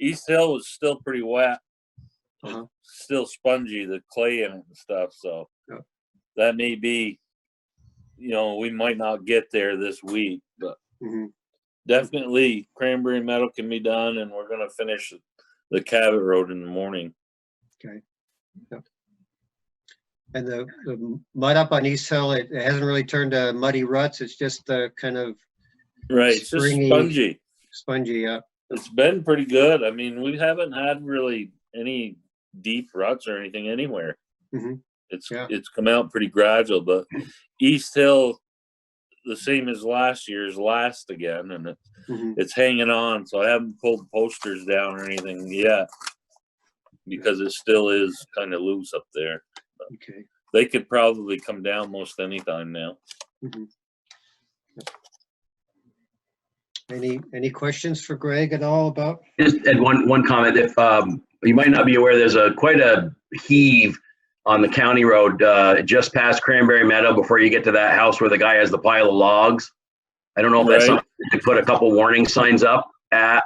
East Hill was still pretty wet. It's Uh-huh. Still spongy, the clay in it and stuff, so. Yeah. That may be, you know, we might not get there this week, but Mhm. definitely cranberry metal can be done and we're gonna finish the Cabot Road in the morning. And the, the mud up on East Hill, it, it hasn't really turned to muddy ruts. It's just uh kind of Right, it's just Springy. spongy. spongy up. It's been pretty good. I mean, we haven't had really any deep ruts or anything anywhere. Mhm. It's Yeah. it's come out pretty gradual, but East Hill, the same as last year's last again, and it, Mhm. it's hanging on. So I haven't pulled posters down or anything yet because it still is kind of loose up there. Okay. They could probably come down most anytime now. Any, any questions for Greg at all about? Just add one, one comment, if, um, you might not be aware, there's a, quite a heave on the county road, uh, just past Cranberry Meadow before you get to that house where the guy has the pile of logs. I don't know if that's Right. something, they put a couple warning signs up at,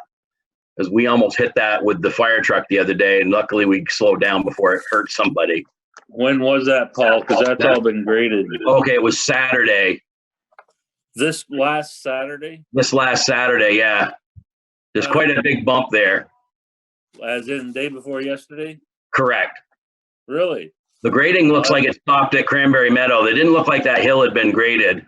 because we almost hit that with the fire truck the other day, and luckily we slowed down before it hurt somebody. When was that, Paul? Because that's all been graded. Okay, it was Saturday, This last Saturday, this last Saturday, yeah. There's quite a big bump there, as in day before yesterday? correct. Really? The grading looks like it stopped at Cranberry Meadow. It didn't look like that hill had been graded. Up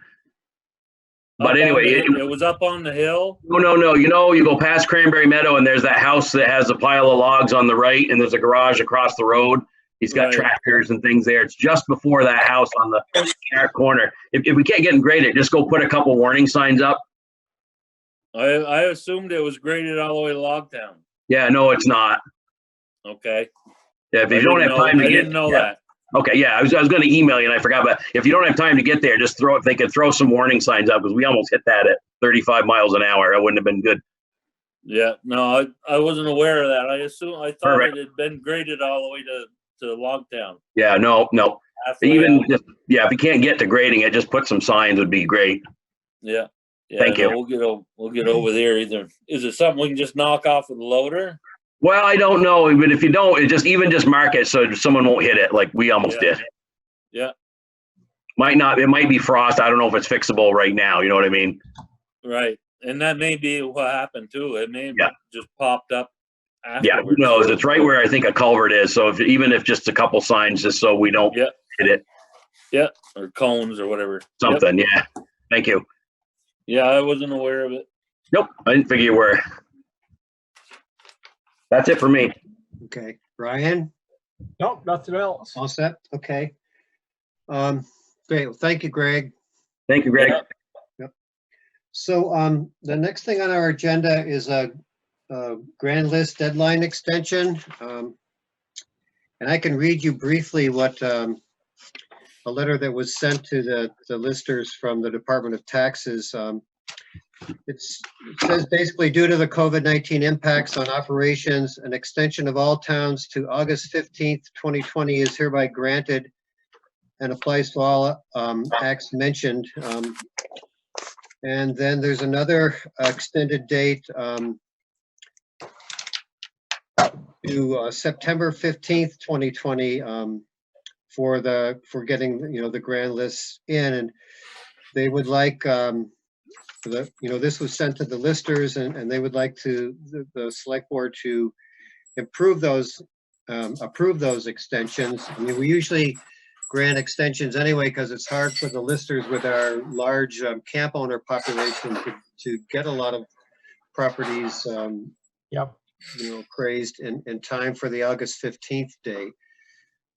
But on anyway, the- it- It was up on the hill. No, no, no. You know, you go past Cranberry Meadow and there's that house that has a pile of logs on the right and there's a garage across the road. He's got Right. tractors and things there. It's just before that house on the far corner. If, if we can't get them graded, just go put a couple warning signs up. I, I assumed it was graded all the way to Logtown. Yeah, no, it's not. Okay. Yeah, if I you don't didn't have know- time to I get. didn't know yeah. that. Okay, yeah, I was, I was going to email you and I forgot, but if you don't have time to get there, just throw, if they could throw some warning signs up because we almost hit that at 35 miles an hour. That wouldn't have been good. Yeah, no, I, I wasn't aware of that. I assume, I thought it Perfect. had been graded all the way to, to Logtown. Yeah, no, no. halfway Even out. just, yeah, if you can't get to grading it, just put some signs would be great. Yeah. yeah, Thank no, you. We'll get, o- we'll get over there either. Is it something we can just knock off with a loader? Well, I don't know, but if you don't, it just even just mark it so someone won't hit it like we almost Yeah. did. Yeah. Might not, it might be frost. I don't know if it's fixable right now. You know what I mean? Right. And that may be what happened too. It may have Yeah. just popped up Yeah, who afterwards. knows? It's right where I think a culvert is. So if, even if just a couple signs, just so we don't, Yeah. Or cones or whatever. Yep. something, yeah. Thank you. Yeah, I wasn't aware of it. Nope, I didn't figure you were. That's it for me. Okay. Ryan, Nope, nothing else. all set? Okay. Um, great. Well, thank you, Greg. Thank you, Greg. Yeah. So um, the next thing on our agenda is a, a grand list deadline extension. Um, and I can read you briefly what um, a letter that was sent to the, the listers from the Department of Taxes. Um, it's, it says basically due to the COVID-19 impacts on operations, an extension of all towns to August 15th, 2020 is hereby granted and applies to all um, acts mentioned. Um, and then there's another uh, extended date um, to uh, September 15th, 2020, um, for the, for getting, you know, the grand lists in. And they would like, um, the, you know, this was sent to the listers and, and they would like to, the- the select board to improve those, um, approve those extensions. I mean, we usually grant extensions anyway, because it's hard for the listers with our large um, camp owner population to, to get a lot of properties, um, Yep. you know, crazed in, in time for the August 15th date.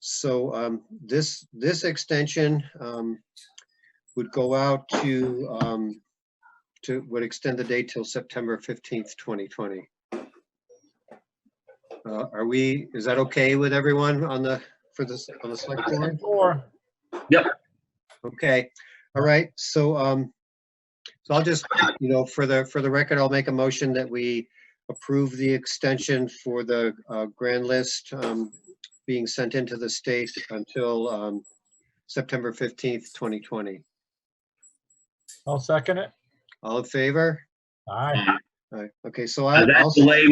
So um, this, this extension um, would go out to, um, to, would extend the date till September 15th, 2020. Uh, Are we, is that okay with everyone on the, for this, on the select board? Four. Okay, all right, so, um, so I'll just, you know, for the, for the record, I'll make a motion that we approve the extension for the, uh, grand list, um, being sent into the state until, um, September fifteenth, twenty twenty. I'll second it. All in favor? Aye. All right, okay, so I. Uh, I'll- That delay